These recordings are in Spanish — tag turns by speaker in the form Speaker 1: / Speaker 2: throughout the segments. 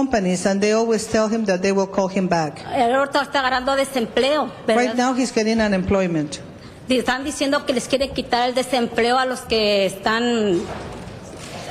Speaker 1: companies and they always tell him that they will call him back.
Speaker 2: Él ahorita está agarrando desempleo, ¿verdad?
Speaker 1: Right
Speaker 3: Pues
Speaker 1: now, he's getting unemployment.
Speaker 2: Y Están diciendo que les quieren quitar el desempleo a los que están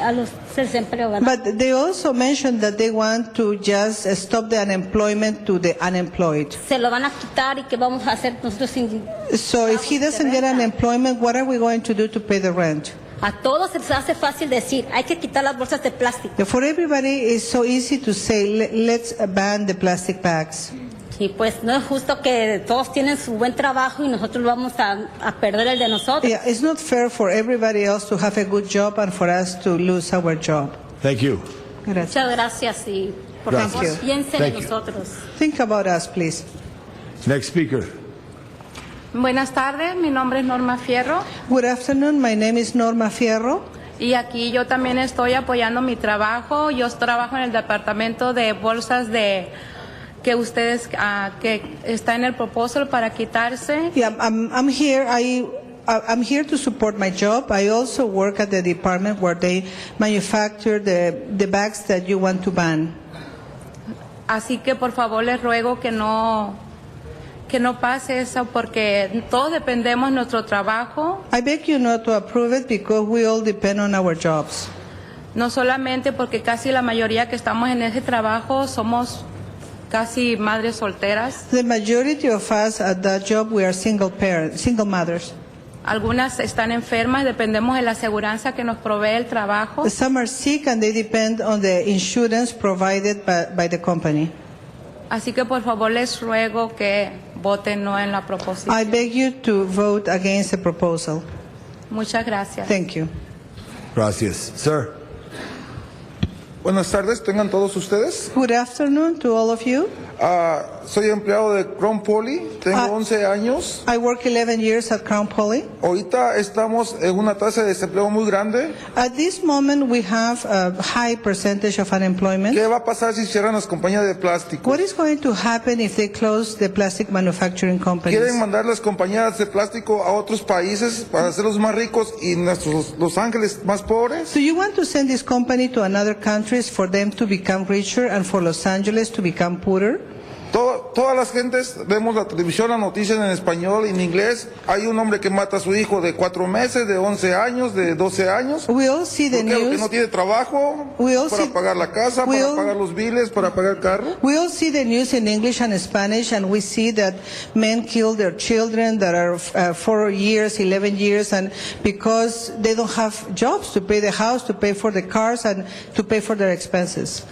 Speaker 2: a los desempleo, ¿verdad?
Speaker 3: Pues-
Speaker 1: But they also mentioned that they want to just stop the unemployment to the unemployed.
Speaker 2: Se lo van a quitar y qué vamos a hacer nosotros sin-
Speaker 1: So if he doesn't get unemployment, what are we going to do to pay the rent?
Speaker 2: a todos se les hace fácil decir, hay que quitar las bolsas de plástico.
Speaker 1: For everybody, it's so easy to say, "Le- let's ban the plastic bags.
Speaker 2: Y pues no es justo que todos tienen su buen trabajo y nosotros vamos a, a perder el de nosotros.
Speaker 1: Yeah, it's not fair for everybody else to have a good job and for us to lose our job.
Speaker 3: Thank you.
Speaker 1: Gracias.
Speaker 2: Muchas gracias y por
Speaker 3: Gracias.
Speaker 2: favor piensen
Speaker 3: Thank
Speaker 2: en
Speaker 3: you.
Speaker 2: nosotros.
Speaker 1: Think about us, please.
Speaker 3: Next speaker.
Speaker 4: Buenas tardes, mi nombre es Norma Fierro
Speaker 1: Good afternoon. My name is Norma Fierro.
Speaker 4: y aquí yo también estoy apoyando mi trabajo. Yo trabajo en el departamento de bolsas de que ustedes ah, que está en el proposal para quitarse.
Speaker 1: Yeah, I'm, I'm here. I, I- I'm here to support my job. I also work at the department where they manufacture the, the bags that you want to ban.
Speaker 4: Así que por favor les ruego que no que no pase eso porque todos dependemos de nuestro trabajo,
Speaker 1: I beg you not to approve it because we all depend on our jobs.
Speaker 4: no solamente porque casi la mayoría que estamos en ese trabajo somos casi madres solteras.
Speaker 1: The majority of us at that job, we are single parents, single mothers.
Speaker 4: Algunas están enfermas, dependemos de la aseguranza que nos provee el trabajo.
Speaker 1: Some are sick and they depend on the insurance provided by, by the company.
Speaker 4: Así que por favor les ruego que voten no en la proposición.
Speaker 1: I beg you to vote against the proposal.
Speaker 4: Muchas gracias.
Speaker 1: Thank you.
Speaker 3: Gracias. Sir.
Speaker 5: Buenas tardes, tengan todos ustedes.
Speaker 1: Good afternoon to all of you.
Speaker 5: Ah, soy empleado de Crown Poly, tengo
Speaker 1: Ah.
Speaker 5: 11 años.
Speaker 1: I work 11 years at Crown Poly.
Speaker 5: Ahorita estamos en una tasa de desempleo muy grande.
Speaker 1: At this moment, we have a high percentage of unemployment.
Speaker 5: ¿Qué va a pasar si cierran las compañías de plástico?
Speaker 1: What is going to happen if they close the plastic manufacturing
Speaker 5: Quieren
Speaker 1: companies?
Speaker 5: mandar las compañías de plástico a otros países
Speaker 1: Ah.
Speaker 5: para hacerlos más ricos y nuestros Los Ángeles más pobres.
Speaker 1: So you want to send this company to another countries for them to become richer and for Los Angeles to become poorer?
Speaker 5: Todo- todas las gentes vemos la televisión, las noticias en español, en inglés. Hay un hombre que mata a su hijo de 4 meses, de 11 años, de 12 años.
Speaker 1: We all see the
Speaker 5: ¿Por qué? Porque
Speaker 1: news.
Speaker 5: no tiene trabajo
Speaker 1: We all see-
Speaker 5: para pagar la casa,
Speaker 1: we
Speaker 5: para
Speaker 1: all-
Speaker 5: pagar los biles, para pagar el carro.
Speaker 1: We all see the news in English and Spanish, and we see that men kill their children that are uh, four years, 11 years, and because they don't have jobs to pay the house, to pay for the cars, and to pay for their expenses.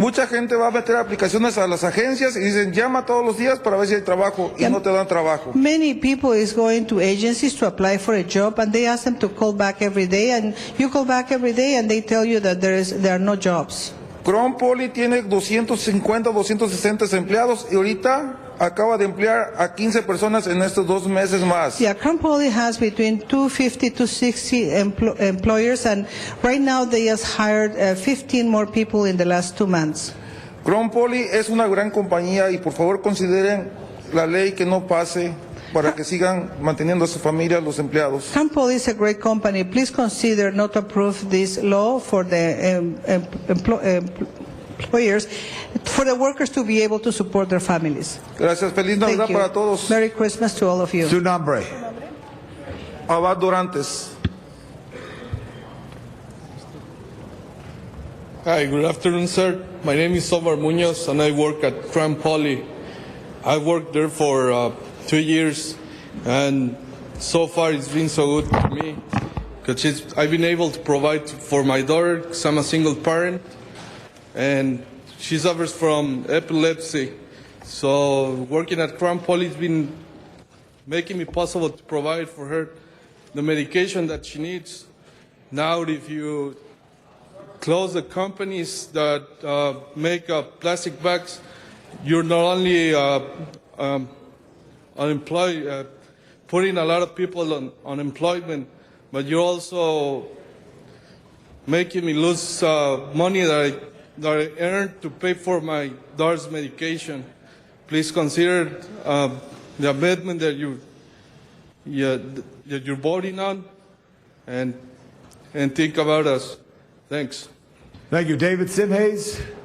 Speaker 5: Mucha gente va a meter aplicaciones a las agencias y dicen llama todos los días para ver si hay trabajo y no te dan trabajo.
Speaker 1: Many people is going to agencies to apply for a job, and they ask them to call back every day, and you call back every day, and they tell you that there is there are no jobs.
Speaker 5: Cron Poly tiene 250, 260 empleados y ahorita acaba de emplear a 15 personas en estos dos meses más.
Speaker 1: Yeah, Crown Poly has between 250 to 60 empl- employers, and right now they has hired uh, 15 more people in the last two months.
Speaker 5: Cron Poly es una gran compañía y por favor consideren la ley que no pase para que sigan manteniendo a su familia los empleados.
Speaker 1: Crown Poly is a great company. Please consider not to approve this law for the um, em- emplo- em- employers, for the workers to be able to support their families.
Speaker 5: Gracias, feliz Navidad
Speaker 1: Thank you.
Speaker 5: para todos.
Speaker 1: Merry Christmas to all of you.
Speaker 3: Su nombre.
Speaker 5: Abad Dorantes.
Speaker 6: Hi, good afternoon, sir. My name is Omar Munoz, and I work at Crown Poly. I worked there for uh, two years, and so far it's been so good for me because I've been able to provide for my daughter because I'm a single parent, and she suffers from epilepsy. So working at Crown Poly has been making it possible to provide for her the medication that she needs. Now, if you close the companies that uh, make uh, plastic bags, you're not only uh, um, unemployed, uh, putting a lot of people on unemployment, but you're also making me lose uh, money that I, that I earned to pay for my daughter's medication. Please consider uh, the amendment that you, yeah, that you're voting on, and and think about us. Thanks.
Speaker 3: Thank you. David Simhays.